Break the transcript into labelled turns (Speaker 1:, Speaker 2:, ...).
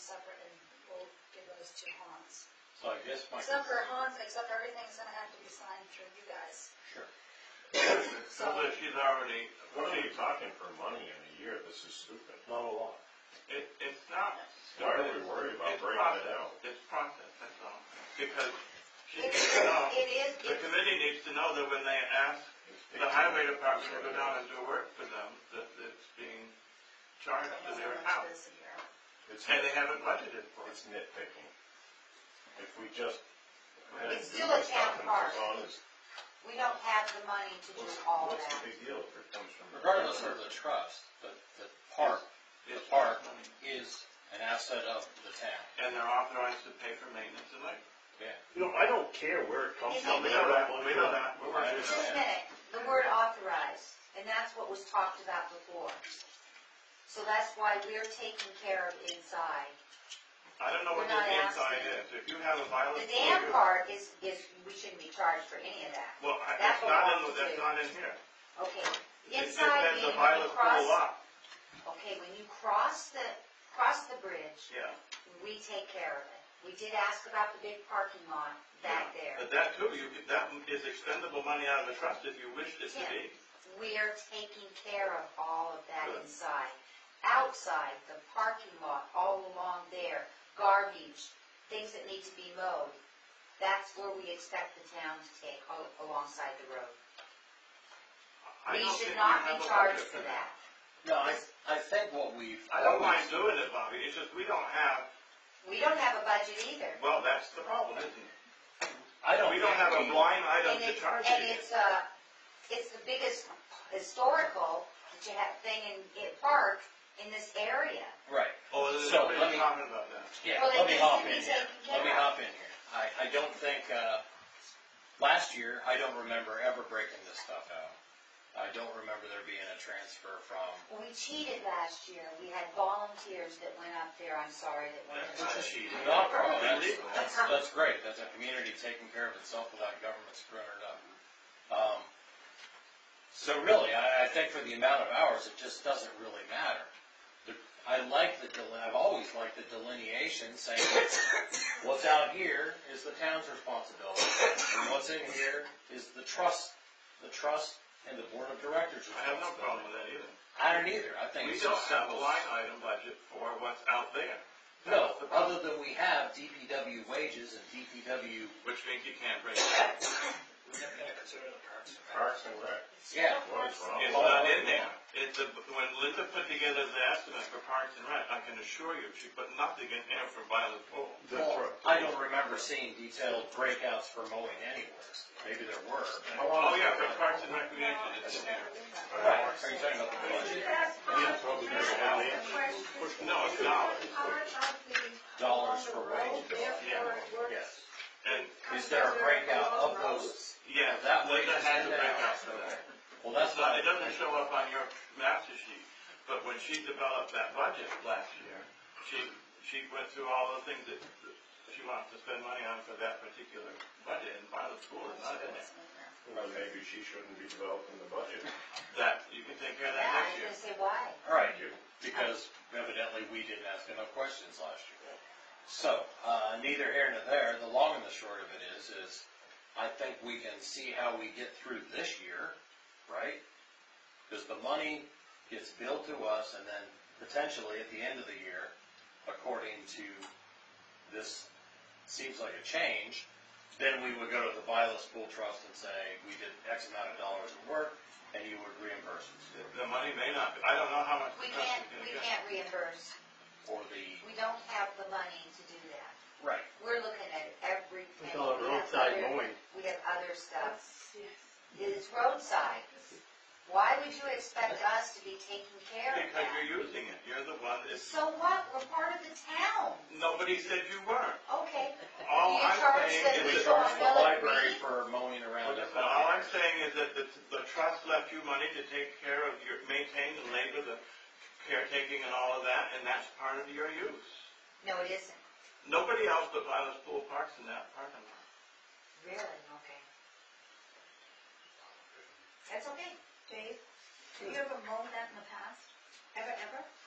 Speaker 1: separate and we'll give those to Hans.
Speaker 2: So I guess my.
Speaker 1: Except for Hans, except everything's gonna have to be signed through you guys.
Speaker 2: Sure.
Speaker 1: So,
Speaker 3: Well, if she's already,
Speaker 4: What are you talking for money in a year? This is stupid.
Speaker 2: Not a lot.
Speaker 3: it, it's not.
Speaker 4: Why are we worried about
Speaker 3: It's
Speaker 4: breaking it
Speaker 3: process,
Speaker 4: out?
Speaker 3: it's process, that's all. Because she
Speaker 1: it
Speaker 3: needs
Speaker 1: is,
Speaker 3: to know,
Speaker 1: it is,
Speaker 3: the
Speaker 1: it's-
Speaker 3: committee needs to know that when they ask the highway department to go down and do work for them, that it's being
Speaker 1: I
Speaker 3: charged to
Speaker 1: don't know
Speaker 3: their
Speaker 1: how much
Speaker 3: account.
Speaker 1: it is a year.
Speaker 4: It's,
Speaker 3: And they haven't budgeted for it.
Speaker 4: it's nitpicking. If we just.
Speaker 1: It's still a town park. We don't have the money to do
Speaker 4: What's,
Speaker 1: all
Speaker 4: what's the
Speaker 1: that.
Speaker 4: big deal if it comes from?
Speaker 2: Regardless of the trust, the, the park
Speaker 3: It's
Speaker 2: The park.
Speaker 3: money.
Speaker 2: is an asset of the town.
Speaker 3: And they're authorized to pay for maintenance and labor.
Speaker 4: You know, I don't care where it comes
Speaker 1: Is it-
Speaker 4: from.
Speaker 3: We know that, we know that, we're
Speaker 2: I
Speaker 3: working on
Speaker 1: Just
Speaker 3: it.
Speaker 1: a minute, the word authorized, and that's what was talked about before. So that's why we're taking care of inside.
Speaker 3: I don't know what the
Speaker 1: We're not
Speaker 3: inside is,
Speaker 1: asking.
Speaker 3: if you have a violent.
Speaker 1: The dam
Speaker 3: behavior-
Speaker 1: part is, is, we shouldn't be charged for any of that.
Speaker 3: Well, I-
Speaker 1: that
Speaker 3: that's not in,
Speaker 1: belongs
Speaker 3: that's
Speaker 1: to-
Speaker 3: not in here.
Speaker 1: Okay,
Speaker 3: It just says
Speaker 1: inside
Speaker 3: the
Speaker 1: meaning when you
Speaker 3: violent pool
Speaker 1: cross,
Speaker 3: lot,
Speaker 1: okay, when you cross the, cross the bridge,
Speaker 3: yeah.
Speaker 1: we take care of it. We did ask about the big parking lot back there.
Speaker 3: But that too, you, could- that is expendable money out of the trust if you wished it to be.
Speaker 1: We are taking care of all of that
Speaker 3: Good.
Speaker 1: inside. Outside, the parking lot, all along there, garbage, things that need to be mowed. That's where we expect the town to take al- alongside the road.
Speaker 3: I
Speaker 1: We
Speaker 3: don't
Speaker 1: should
Speaker 3: think
Speaker 1: not
Speaker 3: you have
Speaker 1: be
Speaker 3: a
Speaker 1: charged
Speaker 3: budget
Speaker 1: for that.
Speaker 2: No, I, I think what we've.
Speaker 3: I don't mind doing it, Bobby, it's just we don't have,
Speaker 1: We don't have a budget either.
Speaker 3: well, that's the problem, isn't it?
Speaker 2: I don't.
Speaker 3: We don't have a
Speaker 2: think we-
Speaker 3: blind item
Speaker 1: And
Speaker 3: to
Speaker 1: it-
Speaker 3: charge
Speaker 1: And
Speaker 3: you.
Speaker 1: it's, uh, it's the biggest historical that you have thing in, in park in this area.
Speaker 2: Right.
Speaker 3: Oh, there's
Speaker 2: So,
Speaker 3: nobody
Speaker 2: let me-
Speaker 3: talking about that.
Speaker 2: Yeah,
Speaker 1: Well,
Speaker 2: let me
Speaker 1: it needs to
Speaker 2: hop
Speaker 1: be
Speaker 2: in here.
Speaker 1: taken care
Speaker 2: Let me
Speaker 1: of.
Speaker 2: hop in here. I, I don't think, uh, last year, I don't remember ever breaking this stuff out. I don't remember there being a transfer from,
Speaker 1: We cheated last year. We had volunteers that went up there, I'm sorry, that went.
Speaker 3: That's not cheating.
Speaker 2: not wrong, that's, that's, that's great. That's a community taking care of itself without government screwing it up. Um, so really, I, I think for the amount of hours, it just doesn't really matter. The- I like the, del- I've always liked the delineation saying what's out here is the town's responsibility. And what's in here is the trust, the trust and the board of directors
Speaker 3: I have no problem
Speaker 2: responsibility.
Speaker 3: with that either.
Speaker 2: I don't either. I think
Speaker 3: We
Speaker 2: it's just
Speaker 3: don't have a
Speaker 2: simple.
Speaker 3: line item budget for what's out there.
Speaker 2: No,
Speaker 3: That's the problem.
Speaker 2: other than we have DPW wages and DPW,
Speaker 3: Which means you can't bring it back.
Speaker 4: Parks and Rec.
Speaker 2: yeah.
Speaker 4: What is wrong?
Speaker 3: It's not in there. It's, a- when Linda put together the estimate for Parks and Rec, I can assure you, she put nothing in there for violent pool.
Speaker 2: Well, I don't remember seeing detailed breakouts for mowing anywhere. Maybe there were. but-
Speaker 3: Oh, yeah, for Parks and Recreation, it's in there.
Speaker 2: Right, are you talking about the budget?
Speaker 4: That's what we did down there.
Speaker 3: No, it's not.
Speaker 2: Dollars for wages. Yes.
Speaker 3: And,
Speaker 2: Is there a breakout of those?
Speaker 3: yeah,
Speaker 2: That way
Speaker 3: Linda
Speaker 2: it's
Speaker 3: had
Speaker 2: in
Speaker 3: the
Speaker 2: there.
Speaker 3: breakout for that.
Speaker 2: Well,
Speaker 3: That's
Speaker 2: that's
Speaker 3: not, it
Speaker 2: not,
Speaker 3: doesn't show up on your master sheet, but when she developed that budget last year, she, she went through all the things that she wants to spend money on for that particular budget, and by the school is not in there.
Speaker 4: Well, maybe she shouldn't be developing the budget.
Speaker 3: That, you can take care of
Speaker 1: Yeah, I
Speaker 3: that next
Speaker 1: was
Speaker 3: year.
Speaker 1: gonna say why.
Speaker 2: all right, because evidently we didn't ask enough questions last year. So, uh, neither here nor there, the long and the short of it is, is I think we can see how we get through this year, right? Because the money gets billed to us and then potentially at the end of the year, according to this, seems like a change, then we would go to the Viola School Trust and say, we did X amount of dollars of work and you would reimburse us
Speaker 3: The money may not, be- I don't know how much
Speaker 1: We
Speaker 3: the trust
Speaker 1: can't,
Speaker 3: is gonna
Speaker 1: we
Speaker 3: get.
Speaker 1: can't reimburse.
Speaker 2: for the.
Speaker 1: We don't have the money to do that.
Speaker 2: Right.
Speaker 1: We're looking at every penny.
Speaker 5: call it
Speaker 1: We have
Speaker 5: roadside
Speaker 1: other-
Speaker 5: mowing.
Speaker 1: We have other stuff. It's roadside. Why would you expect us to be taking care of
Speaker 3: Because
Speaker 1: that?
Speaker 3: you're using it, you're the one, it's,
Speaker 1: So what? We're part of the town.
Speaker 3: nobody said you weren't.
Speaker 1: Okay,
Speaker 3: All
Speaker 1: You
Speaker 3: I'm
Speaker 1: charge
Speaker 3: saying
Speaker 1: the-
Speaker 3: is that.
Speaker 2: We charge the library for mowing around their
Speaker 3: But all I'm
Speaker 2: property.
Speaker 3: saying is that the, the trust left you money to take care of your, maintain and labor, the caretaking and all of that, and that's part of your use.
Speaker 1: no, it isn't.
Speaker 3: Nobody else but Violet Pool Parks in that parking lot.
Speaker 1: Really? Okay. That's okay.
Speaker 6: Dave, have you ever mown that in the past? Ever, ever?